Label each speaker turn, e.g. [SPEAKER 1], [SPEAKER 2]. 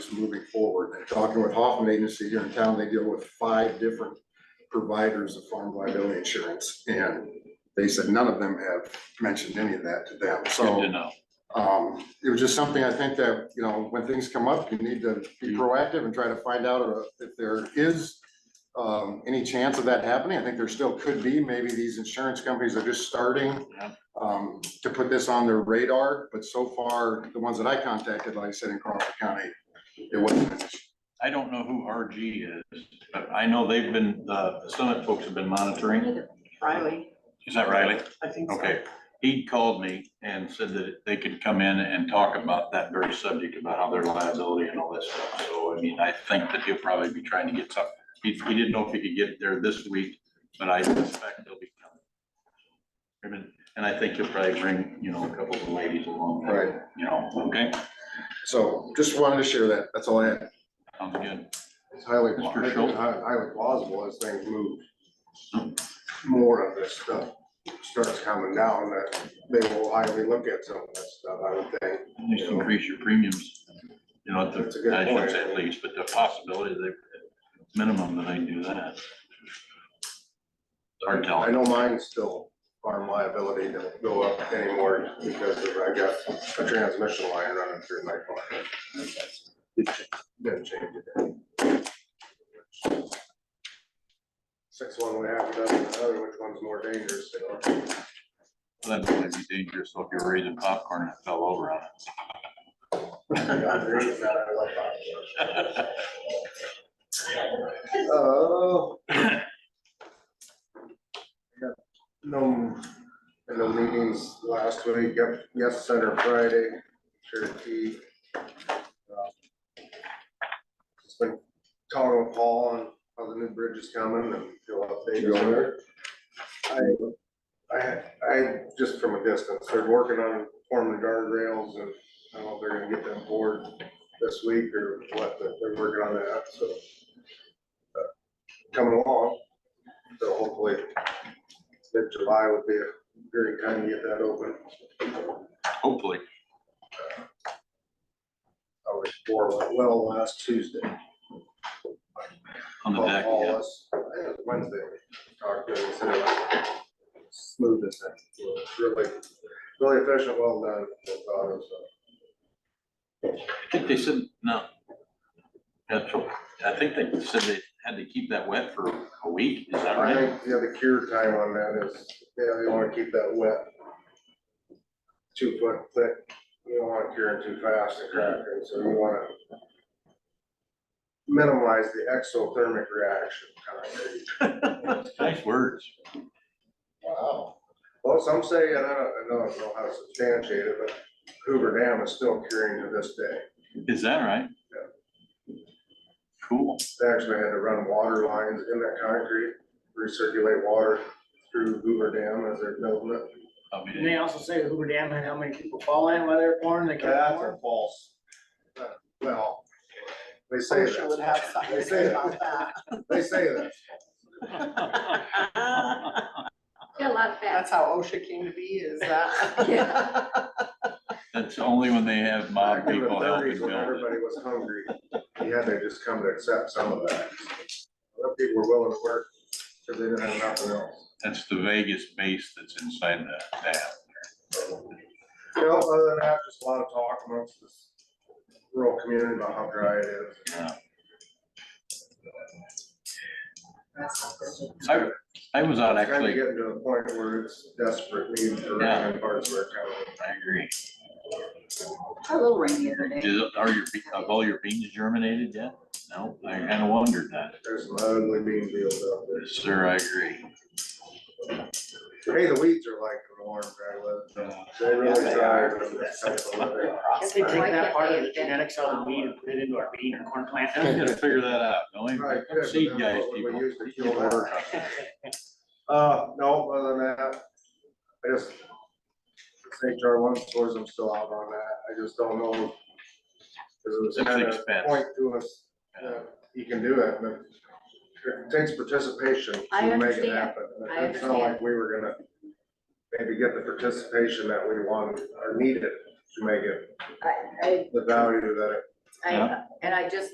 [SPEAKER 1] is moving forward. And talking with Hoffman Agency here in town, they deal with five different providers of farm liability insurance. And they said none of them have mentioned any of that to them.
[SPEAKER 2] Good to
[SPEAKER 1] So
[SPEAKER 2] know.
[SPEAKER 1] um, it was just something I think that, you know, when things come up, you need to be proactive and try to find out uh, if there is um, any chance of that happening. I think there still could be. Maybe these insurance companies are just starting
[SPEAKER 2] Yeah.
[SPEAKER 1] um, to put this on their radar, but so far, the ones that I contacted, like I said, in Crawford County, it wasn't an issue.
[SPEAKER 2] I don't know who RG is, but I know they've been, the Summit folks have been monitoring.
[SPEAKER 3] Riley,
[SPEAKER 2] Is that Riley?
[SPEAKER 3] I think so.
[SPEAKER 2] Okay. He called me and said that they could come in and talk about that very subject, about how their liability and all that stuff. So, I mean, I think that he'll probably be trying to get some, he, he didn't know if he could get there this week, but I suspect he'll be coming. And- And I think he'll probably bring, you know, a couple of ladies along.
[SPEAKER 1] Right.
[SPEAKER 2] You know, okay,
[SPEAKER 1] So just wanted to share that. That's all I had.
[SPEAKER 2] sounds good.
[SPEAKER 4] It's highly,
[SPEAKER 2] Mr.
[SPEAKER 4] I think
[SPEAKER 2] Schultz?
[SPEAKER 4] it's hi- highly plausible as things move, more of this stuff starts coming down, that they will highly look at some of that stuff, I would think.
[SPEAKER 2] At least increase your premiums, you know, at
[SPEAKER 4] That's a good
[SPEAKER 2] the, I shouldn't say at
[SPEAKER 4] point.
[SPEAKER 2] least, but the possibility that, minimum that they do that. Hard
[SPEAKER 4] I
[SPEAKER 2] telling.
[SPEAKER 4] know mine's still farm liability to go up anymore because of, I got a transmission line running through my farm. Didn't change it. Six one way, half dozen another, which one's more dangerous? you know?
[SPEAKER 2] That'd probably be dangerous, so if you're raising popcorn and it fell over on
[SPEAKER 4] I agree with that, I like that.
[SPEAKER 2] it.
[SPEAKER 4] Oh. No, in the meetings last week, yep, yes, Center Friday, Cherokee. uh, Just been talking with Paul on how the new bridge is coming and he'll update you on there. I, I, I, just from a distance, they're working on forming the guardrails and I don't know if they're gonna get them board this week or what, but they're working on that, so uh, coming along. So hopefully, mid-July would be a great time to get that open.
[SPEAKER 2] Hopefully,
[SPEAKER 4] I was for well last Tuesday.
[SPEAKER 2] on the
[SPEAKER 4] Paul
[SPEAKER 2] deck, yeah.
[SPEAKER 4] Hollis, I think it was Wednesday, we talked to him, he said it was smooth as that. Really, really efficient, well done. I thought it was, uh,
[SPEAKER 2] I think they said, no. That's, what- I think they said they had to keep that wet for a week, is
[SPEAKER 4] uh,
[SPEAKER 2] that
[SPEAKER 4] I
[SPEAKER 2] right?
[SPEAKER 4] think, yeah, the cure time on that is, yeah, you wanna keep that wet. Two foot thick, you don't wanna cure it too fast and crack it, so you wanna minimize the exothermic reaction time.
[SPEAKER 2] Nice words.
[SPEAKER 4] Wow. Well, some say, and I don't, I don't know how to substantiate it, but Hoover Dam is still curing to this day.
[SPEAKER 2] Is that right? Cool.
[SPEAKER 4] They actually had to run water lines in that concrete, recirculate water through Hoover Dam as they're building it.
[SPEAKER 2] I'll be-
[SPEAKER 3] And they also say the Hoover Dam had how many people fall in while they were pouring, they can't
[SPEAKER 4] That's
[SPEAKER 3] pour.
[SPEAKER 4] a false. uh, Well, they say
[SPEAKER 5] Portia would
[SPEAKER 4] that,
[SPEAKER 5] have something to
[SPEAKER 4] They say
[SPEAKER 5] say
[SPEAKER 4] that.
[SPEAKER 5] about that.
[SPEAKER 4] they say that.
[SPEAKER 6] Yeah, a lot of that.
[SPEAKER 5] That's how OSHA came to be, is that?
[SPEAKER 2] That's only when they have mob
[SPEAKER 4] Back in the
[SPEAKER 2] people helping
[SPEAKER 4] thirties when
[SPEAKER 2] build it.
[SPEAKER 4] everybody was hungry, you had to just come to accept some of that. Other people were willing to work because they didn't have nothing else.
[SPEAKER 2] That's the Vegas base that's inside the dam.
[SPEAKER 4] You know, other than that, just a lot of talk amongst this rural community about how dry it is.
[SPEAKER 2] I, I was out
[SPEAKER 4] Kind of
[SPEAKER 2] actually,
[SPEAKER 4] getting to the point where it's desperate need for
[SPEAKER 2] Yeah.
[SPEAKER 4] rain in parts of our county.
[SPEAKER 2] I agree.
[SPEAKER 6] A little rainy the other day.
[SPEAKER 2] Is, are your, be- have all your beans germinated yet? No, I kinda wondered that.
[SPEAKER 4] There's some ugly bean fields out there.
[SPEAKER 2] Sir, I agree.
[SPEAKER 4] Hey, the weeds are like the warm dry live. They really dry. but it's kind of a living.
[SPEAKER 3] Can't they take that part of the genetics out of the weed and put it into our bean or corn plant?
[SPEAKER 2] I'm gonna figure that out, don't
[SPEAKER 4] Right, yeah,
[SPEAKER 2] we?
[SPEAKER 4] but
[SPEAKER 2] Seed
[SPEAKER 4] that's
[SPEAKER 2] guys,
[SPEAKER 4] what we
[SPEAKER 2] people.
[SPEAKER 4] used to
[SPEAKER 2] These
[SPEAKER 4] kill
[SPEAKER 2] people
[SPEAKER 4] that.
[SPEAKER 2] work on it.
[SPEAKER 4] Uh, no, other than that, I just, since HR one stores, I'm still out on that, I just don't know. 'Cause it was
[SPEAKER 2] It's
[SPEAKER 4] kinda
[SPEAKER 2] expensive.
[SPEAKER 4] Point to us, that you can do it, but it takes participation
[SPEAKER 6] I
[SPEAKER 4] to make it
[SPEAKER 6] understand.
[SPEAKER 4] happen. And
[SPEAKER 6] I
[SPEAKER 4] It sounded like we were gonna maybe get the participation that we wanted or needed to make it
[SPEAKER 6] I, I
[SPEAKER 4] the value that it
[SPEAKER 6] I,
[SPEAKER 7] Yeah.
[SPEAKER 6] and I just